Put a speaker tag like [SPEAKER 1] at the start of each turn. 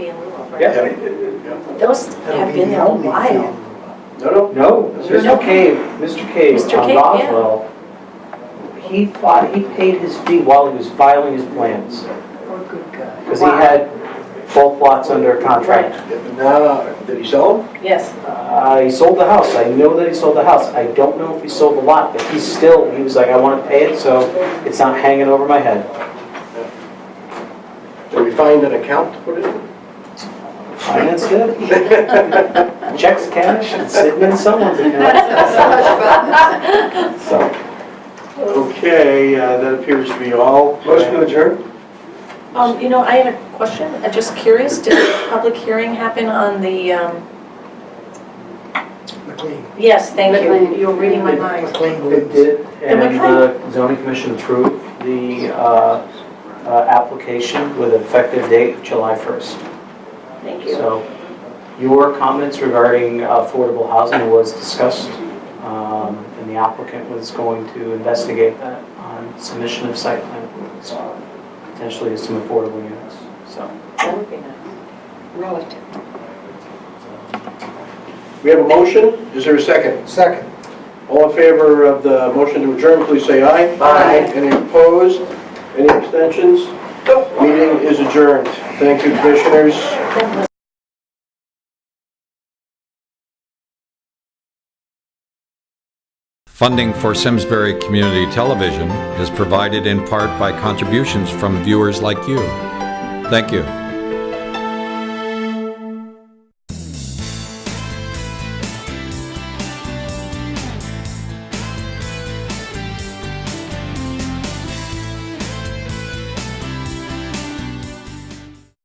[SPEAKER 1] Yeah.
[SPEAKER 2] Those have been there a while.
[SPEAKER 1] No, no.
[SPEAKER 2] No.
[SPEAKER 3] No, Mr. Cave, Mr. Cave
[SPEAKER 2] Mr.
[SPEAKER 3] on
[SPEAKER 2] Cave, yeah.
[SPEAKER 3] Roswell, he fought, he paid his fee while he was filing his plans,
[SPEAKER 2] Oh, good God.
[SPEAKER 3] because he
[SPEAKER 2] Wow.
[SPEAKER 3] had both lots under contract.
[SPEAKER 1] Now, did he sell them?
[SPEAKER 2] Yes,
[SPEAKER 3] I sold the house, I know that he sold the house, I don't know if he sold the lot, but he's still, he was like, I want to pay it, so it's not hanging over my head.
[SPEAKER 1] Did we find an account to put it in?
[SPEAKER 3] Financed it, checks cash, it's sitting in someone's account, so.
[SPEAKER 4] Okay, uh, that appears to be all.
[SPEAKER 3] Motion to adjourn?
[SPEAKER 2] um, you know, I had a question, I'm just curious, did the public hearing happen on the, um,
[SPEAKER 1] McLean.
[SPEAKER 2] yes, thank you,
[SPEAKER 5] McLean.
[SPEAKER 2] you were reading my mind.
[SPEAKER 1] McLean
[SPEAKER 3] It
[SPEAKER 1] believes.
[SPEAKER 3] did, and the zoning commission approved the uh, uh, application with an effective date of July 1st.
[SPEAKER 2] Thank you.
[SPEAKER 3] So your comments regarding affordable housing was discussed, um, and the applicant was going to investigate that on submission of site plan approval, so potentially some affordable units, so.
[SPEAKER 2] That would be nice.
[SPEAKER 5] Relative.
[SPEAKER 4] We have a motion, is there a second?
[SPEAKER 1] Second.
[SPEAKER 4] All in favor of the motion to adjourn, please say aye.
[SPEAKER 2] Aye.
[SPEAKER 4] Any opposed? Any abstentions? Meeting is adjourned. Thank you, commissioners.
[SPEAKER 6] Funding for Simsbury Community Television is provided in part by contributions from viewers like you. Thank you.